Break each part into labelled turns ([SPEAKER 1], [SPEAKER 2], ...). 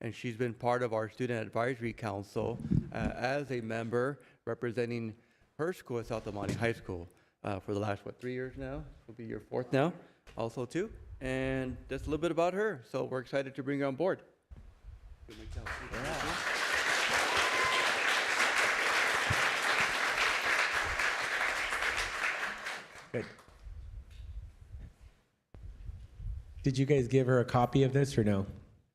[SPEAKER 1] and she's been part of our Student Advisory Council uh, as a member representing her school at South Amani High School uh, for the last, what, three years now? Will be your fourth now, also too. And just a little bit about her, so we're excited to bring her on board.
[SPEAKER 2] Good. Did you guys give her a copy of this or no?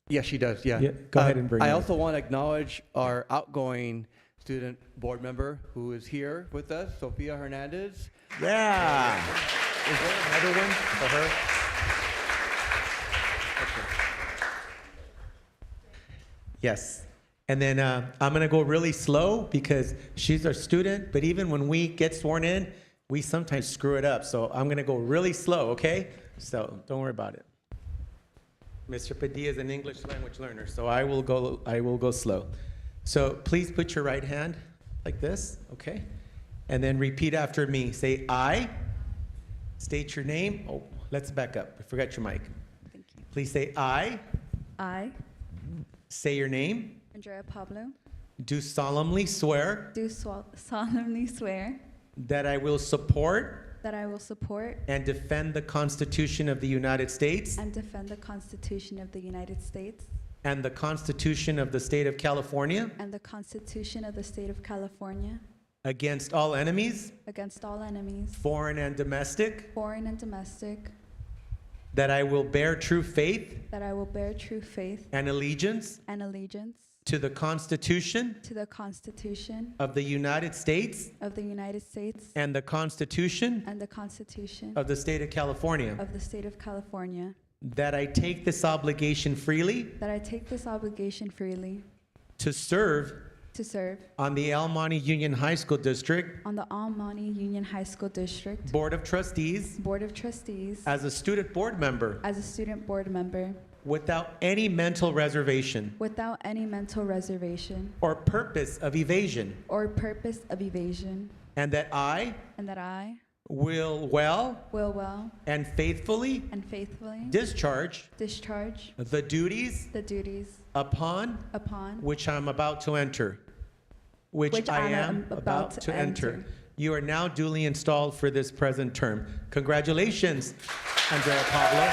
[SPEAKER 1] Yes, she does, yeah.
[SPEAKER 2] Yeah, go ahead
[SPEAKER 1] Um,
[SPEAKER 2] and bring
[SPEAKER 1] I
[SPEAKER 2] her up.
[SPEAKER 1] also want to acknowledge our outgoing student board member who is here with us, Sophia Hernandez.
[SPEAKER 3] Yeah. Is there another one for her?
[SPEAKER 2] Yes. And then uh, I'm going to go really slow because she's our student, but even when we get sworn in, we sometimes screw it up. So I'm going to go really slow, okay? So don't worry about it. Mr. Padilla is an English language learner, so I will go, I will go slow. So please put your right hand like this, okay? And then repeat after me. Say I. State your name. Oh, let's back up. I forgot your mic.
[SPEAKER 4] Thank you.
[SPEAKER 2] Please say I.
[SPEAKER 4] I,
[SPEAKER 2] Say your name.
[SPEAKER 4] Andrea Pablo,
[SPEAKER 2] Do solemnly swear
[SPEAKER 4] do swa- solemnly swear
[SPEAKER 2] that I will support
[SPEAKER 4] that I will support
[SPEAKER 2] and defend the Constitution of the United States
[SPEAKER 4] and defend the Constitution of the United States
[SPEAKER 2] and the Constitution of the State of California
[SPEAKER 4] and the Constitution of the State of California
[SPEAKER 2] against all enemies,
[SPEAKER 4] against all enemies,
[SPEAKER 2] foreign and domestic,
[SPEAKER 4] foreign and domestic,
[SPEAKER 2] that I will bear true faith
[SPEAKER 4] that I will bear true faith
[SPEAKER 2] and allegiance
[SPEAKER 4] and allegiance
[SPEAKER 2] to the Constitution
[SPEAKER 4] to the Constitution
[SPEAKER 2] of the United States
[SPEAKER 4] of the United States
[SPEAKER 2] and the Constitution
[SPEAKER 4] and the Constitution
[SPEAKER 2] of the State of California,
[SPEAKER 4] of the State of California,
[SPEAKER 2] that I take this obligation freely
[SPEAKER 4] that I take this obligation freely
[SPEAKER 2] to serve
[SPEAKER 4] to serve
[SPEAKER 2] on the El Monte Union High School District
[SPEAKER 4] on the Almani Union High School District
[SPEAKER 2] Board of Trustees
[SPEAKER 4] Board of Trustees
[SPEAKER 2] As a student board member,
[SPEAKER 4] As a student board member,
[SPEAKER 2] without any mental reservation
[SPEAKER 4] without any mental reservation
[SPEAKER 2] or purpose of evasion,
[SPEAKER 4] or purpose of evasion,
[SPEAKER 2] and that I
[SPEAKER 4] and that I
[SPEAKER 2] will well
[SPEAKER 4] will well
[SPEAKER 2] and faithfully
[SPEAKER 4] and faithfully
[SPEAKER 2] discharge
[SPEAKER 4] discharge
[SPEAKER 2] the duties
[SPEAKER 4] the duties
[SPEAKER 2] upon
[SPEAKER 4] upon
[SPEAKER 2] which I'm about to enter. Which,
[SPEAKER 4] Which
[SPEAKER 2] I
[SPEAKER 4] I
[SPEAKER 2] am about, to, enter. You are now duly installed for this present term. Congratulations, Andrea Pablo.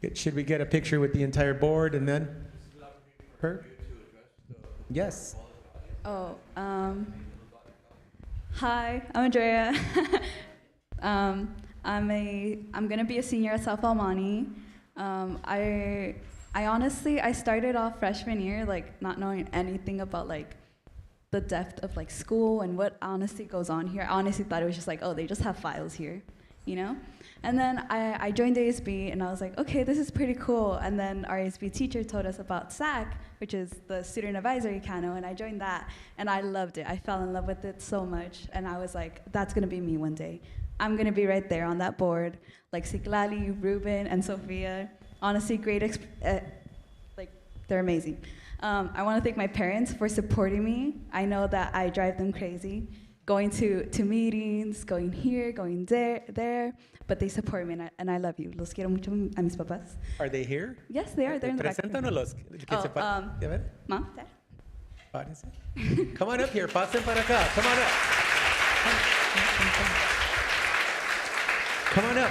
[SPEAKER 2] Good. Should we get a picture with the entire board and then? Her? Yes.
[SPEAKER 4] Oh, um, hi, I'm Andrea. um, I'm a I'm gonna be a senior at South Almani. Um, I I honestly I started off freshman year like not knowing anything about like the depth of like school and what honestly goes on here. I honestly thought it was just like oh they just have files here, you know. And then I, I joined ASB and I was like okay this is pretty cool. And then our ASB teacher told us about SAC which is the Student Advisory Council and I joined that and I loved it. I fell in love with it so much and I was like that's gonna be me one day. I'm gonna be right there on that board, like Siklali, Ruben, and Sophia. Honestly, great, exp- uh, like they're amazing. Um, I want to thank my parents for supporting me. I know that I drive them crazy, going to to meetings, going here, going there, there, but they support me and I, and I love you. Los quiero mucho a mis papás.
[SPEAKER 2] Are they here?
[SPEAKER 4] Yes, they are. They're in the back.
[SPEAKER 2] Preséntanos. Que se
[SPEAKER 4] Oh,
[SPEAKER 2] pa-
[SPEAKER 4] um,
[SPEAKER 2] a ver,
[SPEAKER 4] Mom, Dad.
[SPEAKER 2] párense. Come on up here. Pasen para acá. Come on up. Come on up.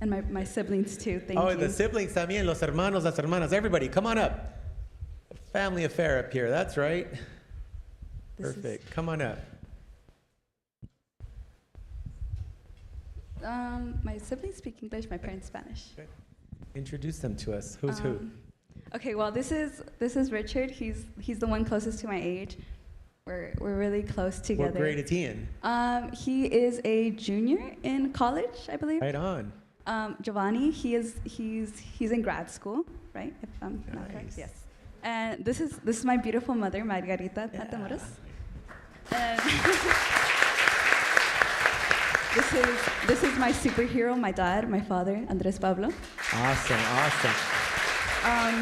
[SPEAKER 4] And my, my siblings too. Thank
[SPEAKER 2] oh,
[SPEAKER 4] you.
[SPEAKER 2] the siblings también, los hermanos, las hermanas. Everybody, come on up. Family affair up here. That's right.
[SPEAKER 4] This is-
[SPEAKER 2] Perfect. Come on up.
[SPEAKER 4] um, my siblings speak English. My parents Spanish.
[SPEAKER 2] Introduce them to us. Who's who?
[SPEAKER 4] Um, Okay, well, this is this is Richard. He's he's the one closest to my age. We're we're really close together.
[SPEAKER 2] What grade is he in?
[SPEAKER 4] Um, he is a junior in college, I believe.
[SPEAKER 2] Right on.
[SPEAKER 4] Um, Giovanni, he is he's he's in grad school, right? If I'm not correct,
[SPEAKER 2] Nice.
[SPEAKER 4] yes. And this is this is my beautiful mother, Margarita Matamoros. And this is this is my superhero, my dad, my father, Andres Pablo.
[SPEAKER 2] Awesome, awesome.
[SPEAKER 4] Um,